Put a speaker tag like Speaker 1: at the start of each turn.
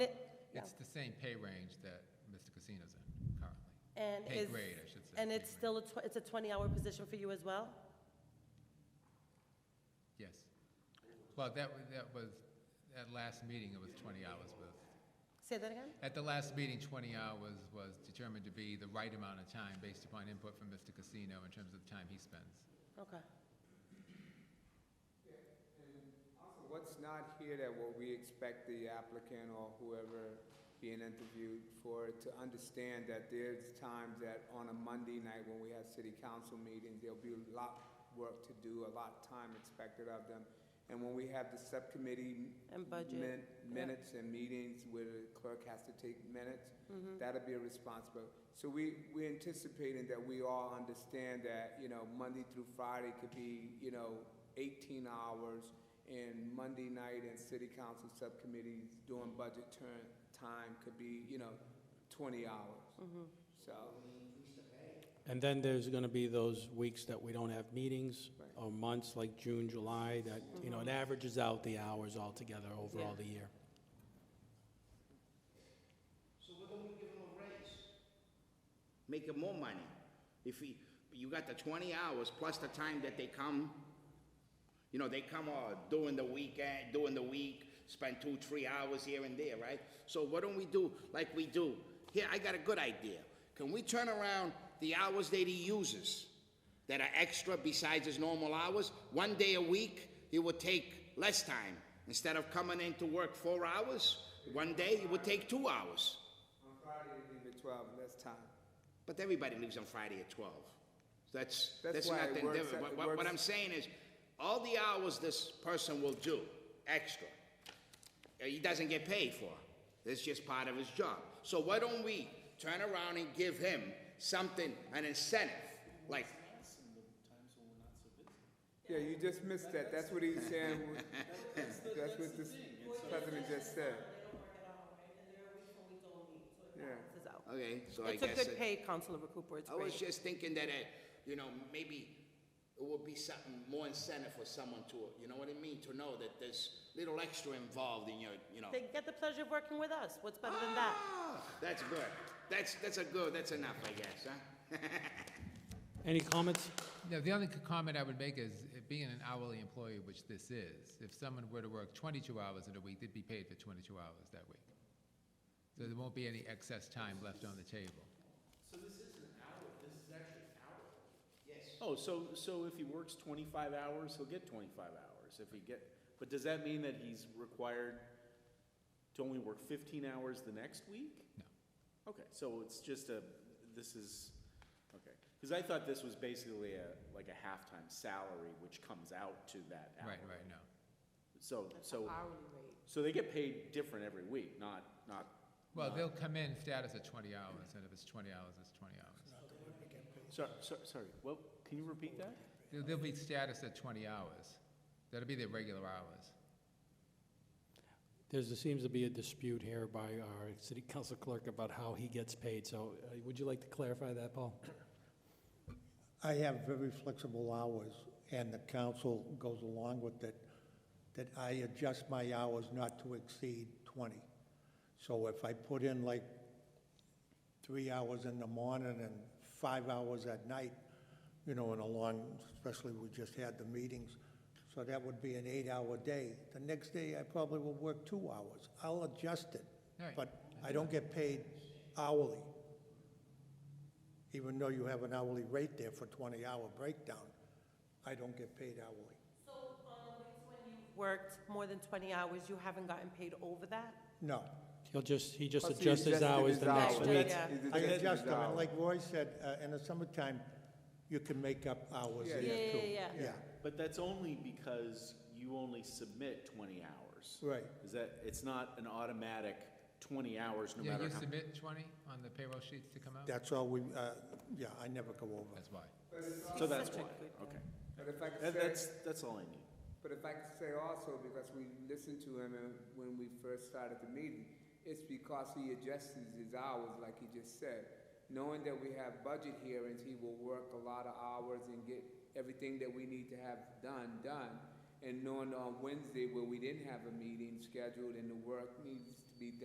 Speaker 1: no.
Speaker 2: It's the same pay range that Mr. Casino's in currently.
Speaker 1: And
Speaker 2: Pay
Speaker 1: is-
Speaker 2: grade, I should say.
Speaker 1: And
Speaker 2: pay
Speaker 1: it's
Speaker 2: grade.
Speaker 1: still, a tw- it's a 20-hour position for you as well?
Speaker 2: Yes. Well, that, wa- that was, at last meeting, it was 20 hours with,
Speaker 1: Say that again?
Speaker 2: at the last meeting, 20 hours was determined to be the right amount of time based upon input from Mr. Casino in terms of the time he spends.
Speaker 1: Okay.
Speaker 3: Also, What's not here that what we expect the applicant or whoever being interviewed for to understand that there's times that on a Monday night when we have city council meetings, there'll be a lot work to do, a lot time expected of them. And when we have the subcommittee.
Speaker 1: And budget,
Speaker 3: min-
Speaker 1: yeah.
Speaker 3: Minutes and meetings where the clerk has to take minutes, that'll be a responsible. So we, we're anticipating that we all understand that, you know, Monday through Friday could be, you know, eighteen hours, and Monday night and city council subcommittees doing budget turn, time could be, you know, twenty hours. So,
Speaker 4: And then there's going to be those weeks that we don't have meetings, or months like June, July, that, you know, it averages out the hours altogether over all the year.
Speaker 5: Make it more money. If we, you got the twenty hours plus the time that they come, you know, they come uh, during the weekend, during the week, spend two, three hours here and there, right? So what don't we do like we do? Here, I got a good idea. Can we turn around the hours that he uses that are extra besides his normal hours? One day a week, he would take less time. Instead of coming in to work four hours, one day it would take two hours.
Speaker 3: on Friday, we leave at twelve, that's time.
Speaker 5: But everybody leaves on Friday at twelve. So That's,
Speaker 3: That's
Speaker 5: that's
Speaker 3: why
Speaker 5: nothing
Speaker 3: it works out-
Speaker 5: different. What-
Speaker 3: it
Speaker 5: What, what
Speaker 3: works-
Speaker 5: I'm saying is, all the hours this person will do, extra, uh, he doesn't get paid for. It's just part of his job. So why don't we turn around and give him something, an incentive? Like,
Speaker 3: Yeah, you just missed that, that's what he's saying, that's what this president just said. Yeah.
Speaker 1: This is out.
Speaker 5: okay, so I
Speaker 1: It's
Speaker 5: guess.
Speaker 1: a good
Speaker 5: it-
Speaker 1: pay, Councilor Cooper, it's
Speaker 5: I was
Speaker 1: great.
Speaker 5: just thinking that, uh, you know, maybe it would be something more incentive for someone to, you know what I mean? To know that there's little extra involved in your, you know.
Speaker 1: They get the pleasure of working with us, what's better than that?
Speaker 5: Ah, That's good. That's, that's a good, that's enough, I guess, huh?
Speaker 4: Any comments?
Speaker 2: No, the only c- comment I would make is, it being an hourly employee, which this is, if someone were to work 22 hours in a week, they'd be paid for 22 hours that week. So there won't be any excess time left on the table.
Speaker 6: Oh, so, so if he works twenty-five hours, he'll get twenty-five hours, if he get, but does that mean that he's required to only work fifteen hours the next week?
Speaker 2: No.
Speaker 6: Okay, so it's just a, this is, okay, cause I thought this was basically a, like a halftime salary, which comes out to that hour.
Speaker 2: Right, right, no.
Speaker 6: So, so, so they get paid different every week, not, not,
Speaker 2: Well, they'll come in status at 20 hours, and if it's 20 hours, it's 20 hours.
Speaker 6: sorry, sorry, well, can you repeat that?
Speaker 2: They'll- They'll be status at 20 hours. That'll be their regular hours.
Speaker 4: There's, there seems to be a dispute here by our city council clerk about how he gets paid, so uh, would you like to clarify that, Paul?
Speaker 7: I have very flexible hours, and the council goes along with it, that I adjust my hours not to exceed 20. So if I put in like three hours in the morning and five hours at night, you know, in a long, especially we just had the meetings, so that would be an eight-hour day. The next day, I probably will work two hours. I'll adjust it,
Speaker 2: Right.
Speaker 7: but I don't get paid hourly, even though you have an hourly rate there for 20-hour breakdown. I don't get paid hourly.
Speaker 1: So on the weeks when you worked more than 20 hours, you haven't gotten paid over that?
Speaker 7: No.
Speaker 4: He'll just, he just
Speaker 3: Plus, he
Speaker 4: adjusts his
Speaker 3: adjusted
Speaker 4: hours the next
Speaker 1: hours.
Speaker 4: week.
Speaker 1: Yeah.
Speaker 3: He
Speaker 7: I
Speaker 3: adjusted his
Speaker 7: adjust them, and
Speaker 3: hours.
Speaker 7: like Roy said, uh, in the summertime, you can make up hours
Speaker 3: Yeah,
Speaker 7: there too.
Speaker 1: yeah, yeah, yeah.
Speaker 6: But that's only because you only submit twenty hours.
Speaker 7: Right.
Speaker 6: Is that, it's not an automatic twenty hours, no
Speaker 2: Yeah,
Speaker 6: matter
Speaker 2: you
Speaker 6: how.
Speaker 2: submit 20 on the payroll sheets to come out?
Speaker 7: That's all we, uh, yeah, I never go over.
Speaker 2: That's why.
Speaker 6: So that's why, okay.
Speaker 3: But if I could
Speaker 6: That,
Speaker 3: say-
Speaker 6: that's, that's all I need.
Speaker 3: But if I could say also, because we listened to him and when we first started the meeting, it's because he adjusts his hours, like he just said. Knowing that we have budget hearings, he will work a lot of hours and get everything that we need to have done, done. And knowing on Wednesday where we didn't have a meeting scheduled and the work needs